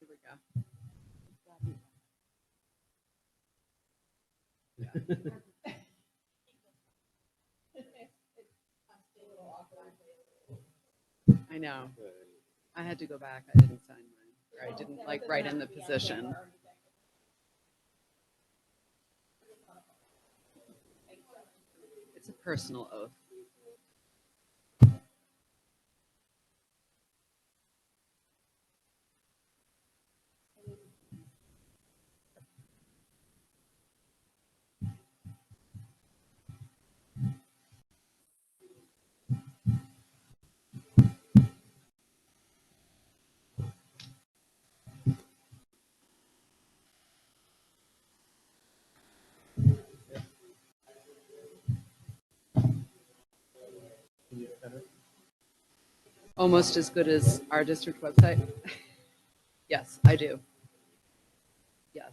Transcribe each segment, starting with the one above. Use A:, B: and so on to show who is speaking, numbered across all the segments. A: Here we go. I know. I had to go back. I didn't sign mine. Or I didn't like write in the position. It's a personal oath. Almost as good as our district website. Yes, I do. Yes.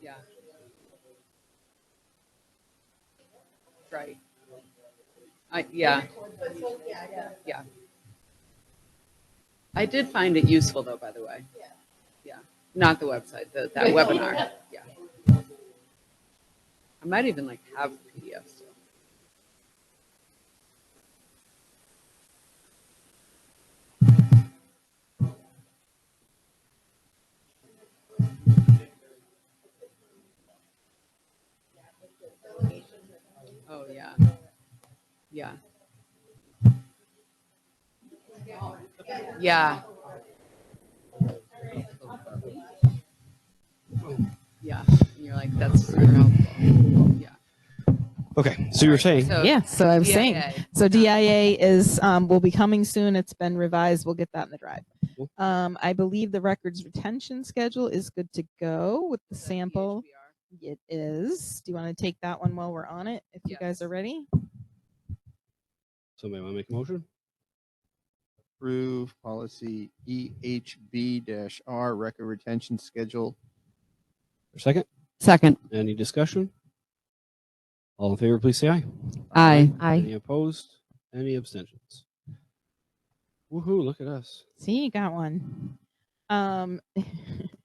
A: Yeah. Right. I, yeah. Yeah. I did find it useful though, by the way. Yeah. Yeah, not the website, the, that webinar, yeah. I might even like have PDFs. still. Oh, yeah. Yeah. Yeah. Yeah, and you're like, that's super helpful, yeah.
B: Okay, so you were saying,
A: So-
C: Yeah, so I was saying.
A: DIA.
C: So DIA is, um, will be coming soon. It's been revised. We'll get that in the drive.
B: Cool.
C: Um, I believe the records retention schedule is good to go with the sample.
A: HBR.
C: It is. Do you want to take that one while we're on it? If you guys
A: Yes.
C: are ready?
B: somebody want to make a motion?
D: approve policy E EHB-R record retention schedule.
B: Or second?
A: Second.
B: Any discussion? All in favor, please say aye.
A: Aye.
B: Any opposed? Any abstentions? Woohoo, look at us.
C: See, you got one. Um,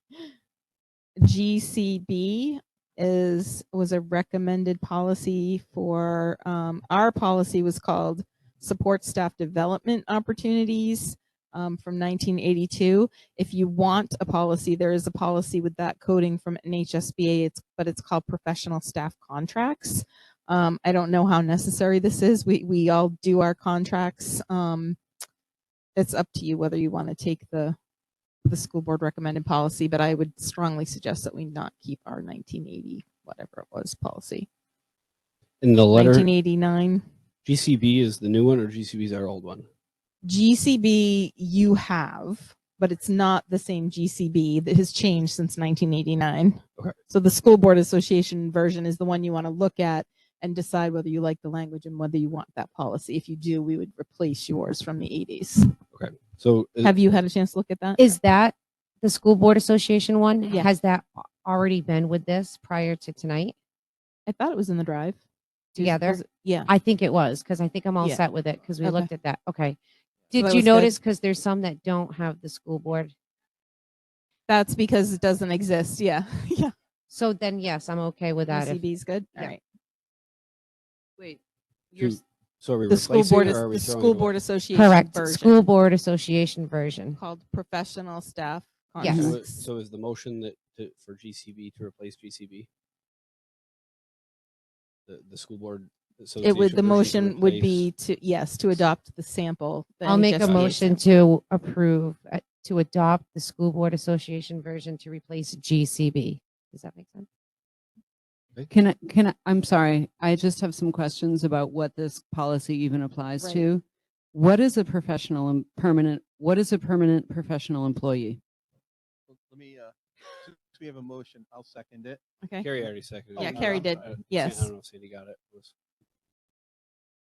C: GCB is was a recommended policy for um, our policy was called support staff development opportunities um, from 1982. If you want a policy, there is a policy with that coding from NHSBA. It's but it's called professional staff contracts. Um, I don't know how necessary this is. We we all do our contracts. Um, it's up to you whether you want to take the the school board recommended policy, but I would strongly suggest that we not keep our 1980 whatever it was policy.
B: And the letter
C: 1989
B: GCB is the new one or GCB is our old one?
C: GCB you have, but it's not the same GCB that has changed since 1989.
B: Okay.
C: So the school board association version is the one you want to look at and decide whether you like the language and whether you want that policy. If you do, we would replace yours from the 80s.
B: So is-
C: Have you had a chance to look at that?
E: Is that the school board association one?
C: Yeah.
E: Has that a- already been with this prior to tonight?
C: I thought it was in the drive. Is-
E: Together?
C: was it- Yeah.
E: I think it was because I think I'm all
C: Yeah.
E: set with it because we
C: Okay.
E: looked at that. Okay.
C: that
E: Did you
C: was good.
E: notice? Because there's some that don't have the school board.
C: That's because it doesn't exist. Yeah. yeah.
E: So then, yes, I'm okay with that. if-
C: UCB is good. All
E: yeah.
C: right.
A: Wait, you're,
F: Hmm.
B: to- so are we
C: The school
B: replacing
C: board
B: it
C: is
B: or are we
C: the
B: throwing
C: school
B: it
C: board association
E: Correct.
C: version
E: School board association version.
C: called professional staff
B: away?
E: Yes.
B: So, it-
C: contracts.
B: so is the motion that to, for GCB to replace GCB? The, the school board
C: It
B: association
C: would,
B: version
C: the
B: to
C: motion would
B: replace-
C: be to, yes, to adopt the sample. the
E: I'll make a
C: NHSBA
E: motion
C: sample.
E: to approve, uh, to adopt the school board association version to replace GCB. Does that make sense?
F: Can I, can I, I'm sorry, I just have some questions about what this policy even applies
C: Right.
F: to. What is a professional and permanent, what is a permanent professional employee?
D: Let me, uh, since we have a motion, I'll second it.
C: Okay.
B: Carrie already seconded.
C: Yeah,
B: it.
C: Carrie
B: I'm
C: did.
B: sorry. I-
C: Yes.
B: I don't know if Sandy got it. Was-